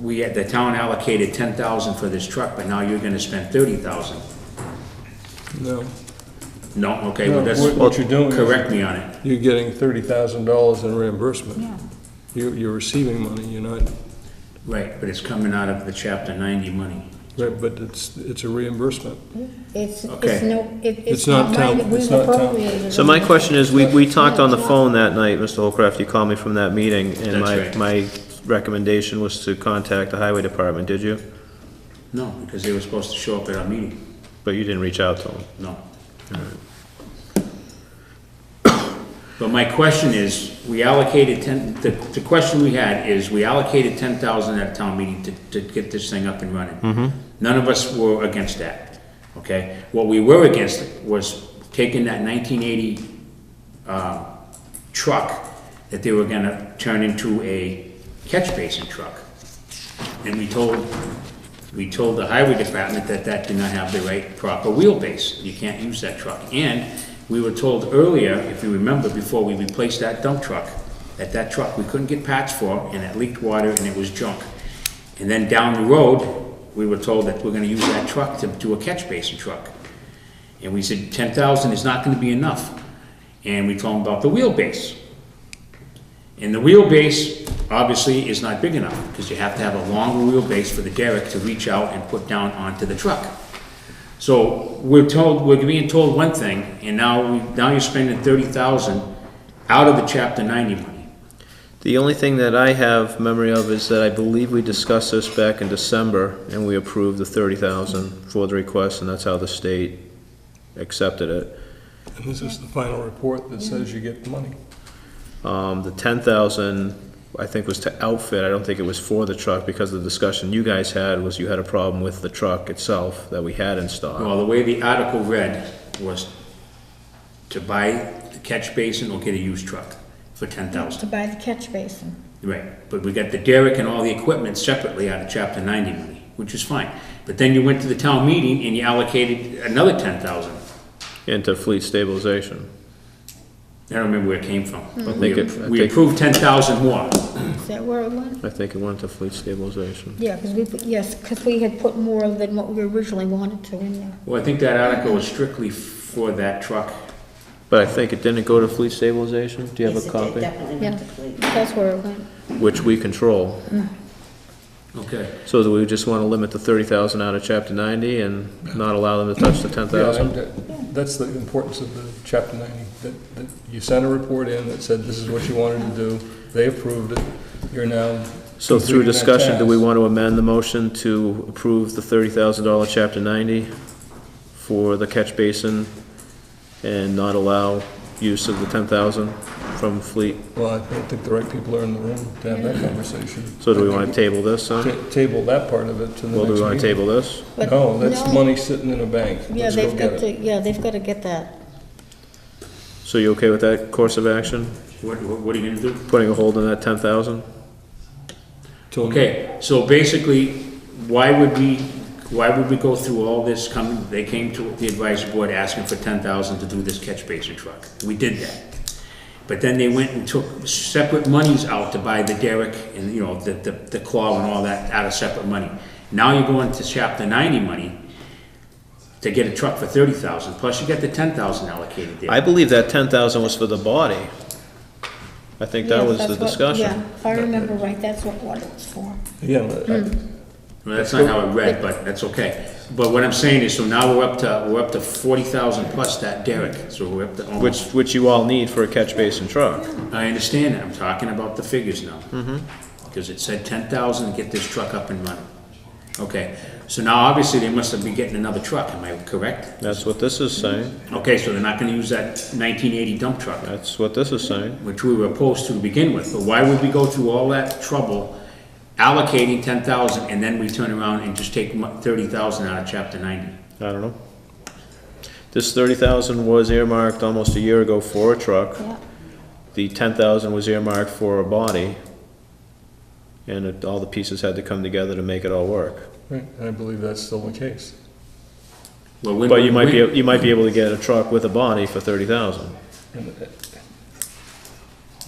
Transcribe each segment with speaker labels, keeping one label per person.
Speaker 1: we had, the town allocated ten thousand for this truck, but now you're gonna spend thirty thousand.
Speaker 2: No,
Speaker 1: No, okay, well,
Speaker 2: No,
Speaker 1: that's.
Speaker 2: what- what you're doing is-
Speaker 1: Correct me on it.
Speaker 2: you're getting thirty thousand dollars in reimbursement.
Speaker 3: Yeah.
Speaker 2: You, you're receiving money, you're not,
Speaker 1: Right, but it's coming out of the chapter ninety money.
Speaker 2: right, but it's, it's a reimbursement.
Speaker 3: It's,
Speaker 1: Okay.
Speaker 3: it's no, it-
Speaker 2: It's
Speaker 3: it's
Speaker 2: not
Speaker 3: not mine,
Speaker 2: town-
Speaker 3: that we
Speaker 2: it's not town.
Speaker 3: appropriated.
Speaker 4: So my question is, we, we talked on the
Speaker 3: Yeah.
Speaker 4: phone that night, Mr. Holcraft, you called me from that meeting,
Speaker 1: That's
Speaker 4: and my,
Speaker 1: right.
Speaker 4: my recommendation was to contact the highway department, did you?
Speaker 1: No, because they were supposed to show up at our meeting.
Speaker 4: But you didn't reach out to them.
Speaker 1: No. But my question is, we allocated ten, the, the question we had is, we allocated ten thousand at town meeting to, to get this thing up and running. None of us were against that, okay? What we were against was taking that nineteen eighty, uh, truck that they were gonna turn into a catch basin truck. And we told, we told the highway department that that did not have the right proper wheelbase. You can't use that truck. And we were told earlier, if you remember, before we replaced that dump truck, that that truck we couldn't get patch for and it leaked water and it was junk. And then down the road, we were told that we're gonna use that truck to do a catch basin truck. And we said, ten thousand is not gonna be enough. And we told them about the wheelbase. And the wheelbase, obviously, is not big enough, because you have to have a longer wheelbase for the derrick to reach out and put down onto the truck. So we're told, we're being told one thing, and now, we- now you're spending thirty thousand out of the chapter ninety money.
Speaker 4: The only thing that I have memory of is that I believe we discussed this back in December, and we approved the thirty thousand for the request, and that's how the state accepted it.
Speaker 2: And this is the final report that says you get the money.
Speaker 4: Um, the ten thousand, I think, was to outfit, I don't think it was for the truck, because the discussion you guys had was you had a problem with the truck itself that we had in stock.
Speaker 1: Well, the way the article read was to buy the catch basin or get a used truck for ten
Speaker 3: To
Speaker 1: thousand.
Speaker 3: buy the catch basin.
Speaker 1: Right, but we got the derrick and all the equipment separately out of chapter ninety money, which is fine. But then you went to the town meeting and you allocated another ten thousand.
Speaker 4: into fleet stabilization.
Speaker 1: I don't remember where it came from. but
Speaker 4: think
Speaker 1: we-
Speaker 4: it- I
Speaker 1: We
Speaker 4: think-
Speaker 1: approved ten thousand more.
Speaker 3: Is that where it went?
Speaker 4: I think it went to fleet stabilization.
Speaker 3: Yeah, because we, put- yes, because we had put more than what we originally wanted to in there.
Speaker 1: Well, I think that article was strictly for that truck.
Speaker 4: But I think it didn't go to fleet stabilization? Do you have
Speaker 5: Yes,
Speaker 4: a
Speaker 5: it did,
Speaker 4: copy?
Speaker 5: Definitely
Speaker 3: Yeah,
Speaker 5: went to Cleveland.
Speaker 3: that's where it went.
Speaker 4: Which we control.
Speaker 1: Okay.
Speaker 4: So do we just want to limit the thirty thousand out of chapter ninety and not allow them to touch the ten thousand?
Speaker 2: Yeah, and That's the importance of the chapter ninety, that, that you sent a report in that said this is what you wanted to do, they approved it, you're now.
Speaker 4: So through
Speaker 2: completing that
Speaker 4: discussion, do we
Speaker 2: task.
Speaker 4: want to amend the motion to approve the thirty thousand dollar chapter ninety for the catch basin and not allow use of the ten thousand from fleet?
Speaker 2: Well, I don't think the right people are in the room to have that conversation.
Speaker 4: So do we want to table this, huh?
Speaker 2: Ta- Table that part of it to the next meeting.
Speaker 4: Well, do we want to table this?
Speaker 3: But
Speaker 2: No, Oh, that's
Speaker 3: no,
Speaker 2: money sitting in a bank.
Speaker 3: Yeah,
Speaker 2: Let's go
Speaker 3: they've
Speaker 2: get
Speaker 3: got
Speaker 2: it.
Speaker 3: to, yeah, they've got to get that.
Speaker 4: So you okay with that course of action,
Speaker 1: What, what what are you gonna do?
Speaker 4: putting a hold on that ten thousand?
Speaker 2: Till-
Speaker 1: Okay, so basically, why would we, why would we go through all this coming, they came to the advisory board asking for ten thousand to do this catch basin truck. We did that. But then they went and took separate monies out to buy the derrick and, you know, the, the, the claw and all that out of separate money. Now you're going to chapter ninety money to get a truck for thirty thousand, plus you got the ten thousand allocated there.
Speaker 4: I believe that ten thousand was for the body. I think that
Speaker 3: Yeah,
Speaker 4: was
Speaker 3: that's
Speaker 4: the
Speaker 3: what-
Speaker 4: discussion.
Speaker 3: Yeah, if I remember right, that's what, what it was for.
Speaker 2: Again,
Speaker 3: Hmm.
Speaker 2: I-
Speaker 1: Well, that's not how I read, but that's okay. But what I'm saying is, so now we're up to, we're up to forty thousand plus that derrick, so we're up to almost,
Speaker 4: Which, which you all need for a catch basin truck.
Speaker 1: I understand that, I'm talking about the figures now.
Speaker 4: Mm-hmm.
Speaker 1: Because it said ten thousand to get this truck up and running. Okay, so now obviously they must have been getting another truck, am I correct?
Speaker 4: That's what this is saying.
Speaker 1: Okay, so they're not gonna use that nineteen eighty dump truck.
Speaker 4: That's what this is saying.
Speaker 1: which we were opposed to begin with, but why would we go through all that trouble allocating ten thousand and then we turn around and just take thirty thousand out of chapter ninety?
Speaker 4: I don't know. This thirty thousand was earmarked almost a year ago for a truck.
Speaker 3: Yeah.
Speaker 4: The ten thousand was earmarked for a body. And it, all the pieces had to come together to make it all work.
Speaker 2: right, and I believe that's still the case.
Speaker 1: Well, when-
Speaker 4: But you might be,
Speaker 1: when-
Speaker 4: you might be able to get a truck with a body for thirty thousand.
Speaker 2: And, uh,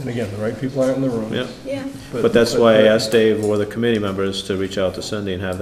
Speaker 2: And again, the right people aren't in the room.
Speaker 4: Yep.
Speaker 3: Yeah.
Speaker 4: But that's why I asked Dave or the committee members to reach out to Cindy and have that